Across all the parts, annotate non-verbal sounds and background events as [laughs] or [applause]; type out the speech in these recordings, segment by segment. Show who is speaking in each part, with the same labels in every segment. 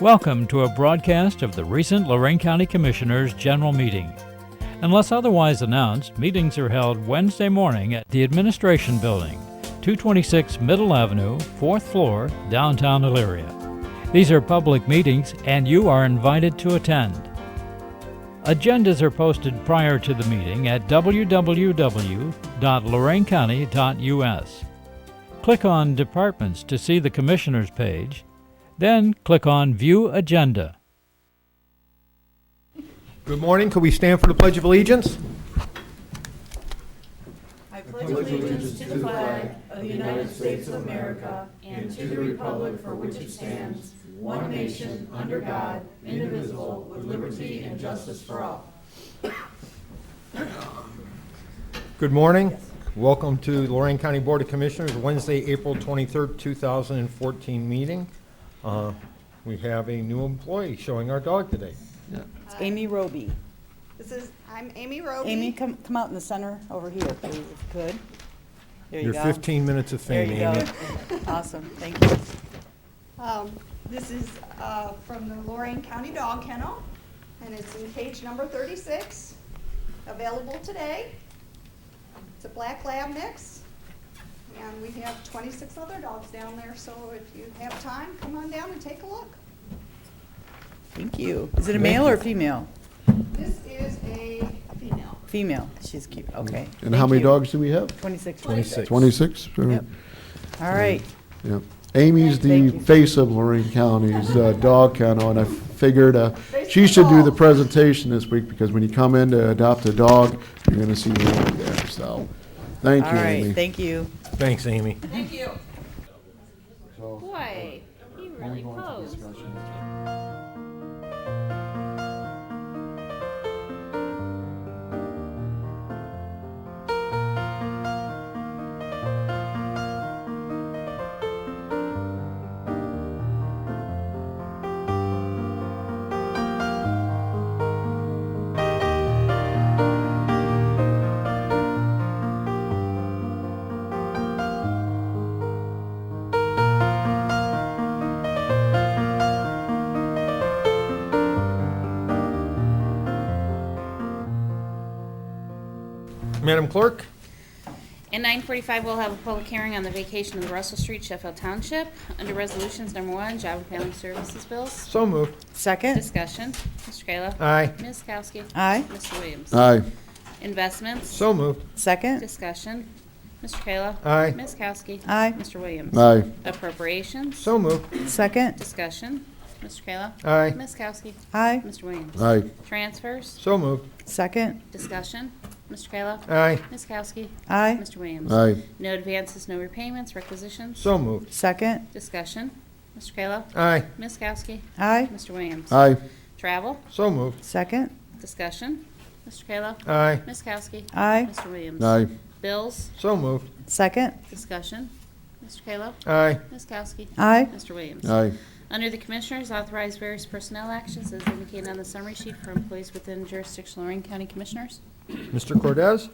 Speaker 1: Welcome to a broadcast of the recent Lorraine County Commissioners' General Meeting. Unless otherwise announced, meetings are held Wednesday morning at the Administration Building, 226 Middle Avenue, 4th floor, downtown Elyria. These are public meetings and you are invited to attend. Agendas are posted prior to the meeting at www.loraincounty.us. Click on Departments to see the Commissioners page, then click on View Agenda.
Speaker 2: Good morning. Could we stand for the Pledge of Allegiance? Good morning. Welcome to Lorraine County Board of Commissioners, Wednesday, April 23rd, 2014 meeting. Uh, We have a new employee showing our dog today.
Speaker 3: Amy Roby.
Speaker 4: This is, I'm Amy Roby.
Speaker 3: Amy, come, come out in the center over here, please, if you could. There you
Speaker 2: Your
Speaker 3: go.
Speaker 2: 15 minutes of
Speaker 3: There
Speaker 2: fame,
Speaker 3: you
Speaker 2: Amy.
Speaker 3: go. [laughs] Awesome, thank you.
Speaker 4: Um, This is uh, from the Lorraine County Dog Kennel, and it's in cage number 36, available today. It's a black lab mix, and we have 26 other dogs down there, so if you have time, come on down and take a look.
Speaker 3: Thank you. Is it a male or female?
Speaker 4: This is a female.
Speaker 3: Female, she's cute, okay.
Speaker 5: And how
Speaker 3: Thank
Speaker 5: many
Speaker 3: you.
Speaker 5: dogs do we have?
Speaker 3: Twenty-six.
Speaker 2: 26.
Speaker 5: 26? All right.
Speaker 3: Yep. All right,
Speaker 5: Yeah. Amy's the
Speaker 3: Thank you.
Speaker 5: face of Lorraine
Speaker 3: [laughs]
Speaker 5: County's uh, dog kennel, and I figured uh,
Speaker 4: Face
Speaker 5: she
Speaker 4: of
Speaker 5: should do the
Speaker 4: dog.
Speaker 5: presentation this week, because when you come in to adopt a dog, you're going to see Amy there, so, thank
Speaker 3: all
Speaker 5: you, Amy.
Speaker 3: right, thank you.
Speaker 2: Thanks, Amy.
Speaker 6: Boy, he really posed.
Speaker 2: Madam Clerk?
Speaker 6: At nine forty-five, we'll have a public hearing on the vacation of Russell Street, Sheffield Township. Under Resolutions Number One, Job and Family Services Bills.
Speaker 2: So moved.
Speaker 3: Second,
Speaker 6: Discussion, Mr. Kayla.
Speaker 7: Uh.
Speaker 2: Aye.
Speaker 6: Ms. Kowski.
Speaker 3: Aye.
Speaker 6: Mr. Williams.
Speaker 5: Aye,
Speaker 6: Investments,
Speaker 2: So moved.
Speaker 3: second,
Speaker 6: discussion, Mr. Kayla.
Speaker 7: Uh.
Speaker 2: Aye.
Speaker 6: Ms. Kowski.
Speaker 3: Aye.
Speaker 6: Mr. Williams.
Speaker 5: aye,
Speaker 6: Appropriations,
Speaker 2: So moved.
Speaker 3: second,
Speaker 6: discussion, Mr. Kayla.
Speaker 7: Uh.
Speaker 2: Aye.
Speaker 6: Ms. Kowski.
Speaker 3: aye,
Speaker 6: Mr. Williams.
Speaker 5: aye,
Speaker 6: Transfers,
Speaker 2: So moved.
Speaker 3: second,
Speaker 6: discussion, Mr. Kayla.
Speaker 2: Aye.
Speaker 6: Ms. Kowski.
Speaker 3: aye,
Speaker 6: Mr. Williams.
Speaker 5: aye,
Speaker 6: No advances, no repayments, requisitions.
Speaker 2: So moved.
Speaker 3: second,
Speaker 6: Discussion. Mr. Kayla.
Speaker 2: Aye.
Speaker 6: Ms. Kowski.
Speaker 3: aye,
Speaker 6: Mr. Williams.
Speaker 5: aye,
Speaker 6: Travel.
Speaker 2: So moved.
Speaker 3: second,
Speaker 6: Discussion. Mr. Kayla.
Speaker 2: Aye.
Speaker 6: Ms. Kowski.
Speaker 3: aye,
Speaker 6: Mr. Williams.
Speaker 5: aye,
Speaker 6: Bills.
Speaker 2: So moved.
Speaker 3: second,
Speaker 6: Discussion. Mr. Kayla.
Speaker 2: Aye.
Speaker 6: Ms. Kowski.
Speaker 3: aye,
Speaker 6: Mr. Williams.
Speaker 5: aye,
Speaker 6: Under the Commissioners, authorize various personnel actions as indicated on the summary sheet for employees within jurisdiction Lorraine County Commissioners.
Speaker 2: Mr. Cordez?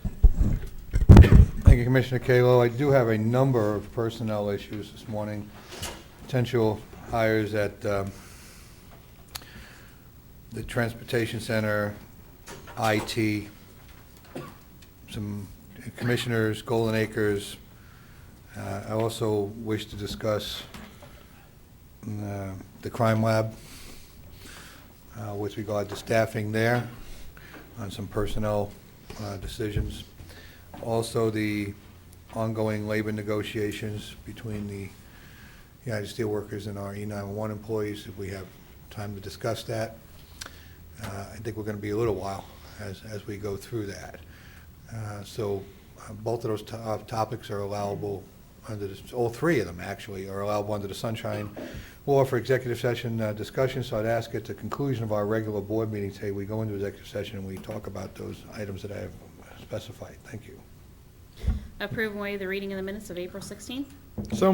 Speaker 7: Thank you, Commissioner Kalo. I do have a number of personnel issues this morning, potential hires at um, the Transportation Center, IT, some commissioners, Golden Acres. Uh, I also wish to discuss uh, the crime lab uh, with regard to staffing there on some personnel uh, decisions. Also, the ongoing labor negotiations between the United Steelworkers and our E-911 employees, if we have time to discuss that. Uh, I think we're going to be a little while as, as we go through that. Uh, So uh, both of those to- uh, topics are allowable under, the- all three of them, actually, are allowable under the sunshine law for executive session uh, discussion. So I'd ask at the conclusion of our regular board meeting today, we go into executive session and we talk about those items that I have specified. Thank you.
Speaker 6: Approve and waive the reading of the minutes of April 16th.